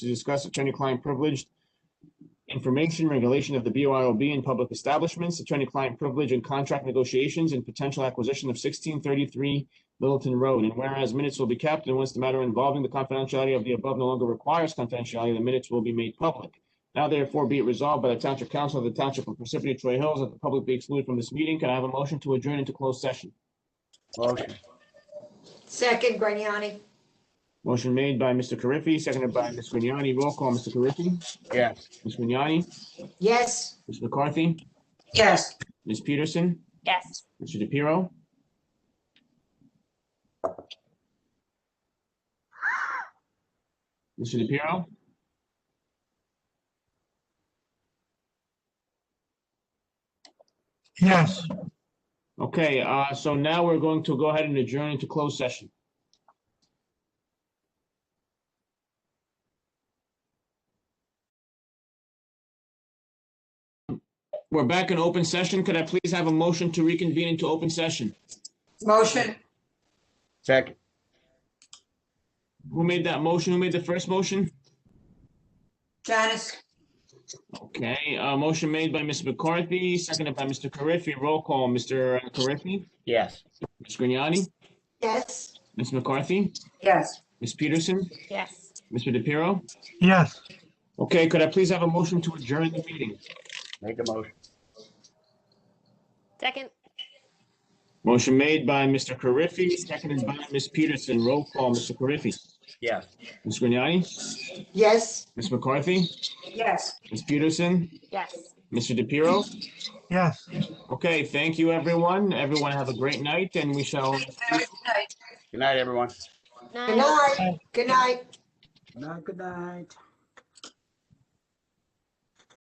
to discuss attorney-client privileged information regulation of the BYOB in public establishments, attorney-client privilege and contract negotiations, and potential acquisition of sixteen thirty-three Littleton Road. And whereas minutes will be kept, and once the matter involving the confidentiality of the above no longer requires confidentiality, the minutes will be made public. Now therefore be it resolved by the Township Council of the Township of Parsippany Troy Hills that the public be excluded from this meeting. Can I have a motion to adjourn into closed session? Motion. Second, Grignani. Motion made by Mr. Carriffy, seconded by Ms. Grignani. Roll call, Mr. Carriffy, Yes. Ms. Grignani, Yes. Ms. McCarthy, Yes. Ms. Peterson, Yes. Mr. DePiero. Mr. DePiero, Yes, okay, uh, so now we're going to go ahead and adjourn into closed session. We're back in open session. Could I please have a motion to reconvene into open session? Motion. Second. Who made that motion? Who made the first motion? Janice. Okay, uh, motion made by Ms. McCarthy, seconded by Mr. Carriffy. Roll call, Mr. Carriffy, Yes. Ms. Grignani, Yes. Ms. McCarthy, Yes. Ms. Peterson, Yes. Mr. DePiero. yes. Okay, could I please have a motion to adjourn the meeting? Make a motion. Second. Motion made by Mr. Carriffy, seconded by Ms. Peterson. Roll call, Mr. Carriffy, Yes. Ms. Grignani, Yes. Ms. McCarthy, Yes. Ms. Peterson, Yes. Mr. DePiero. Yes. Okay, thank you, everyone. Everyone have a great night, and we shall Good night, everyone. Good night. Good night. Good night, good night.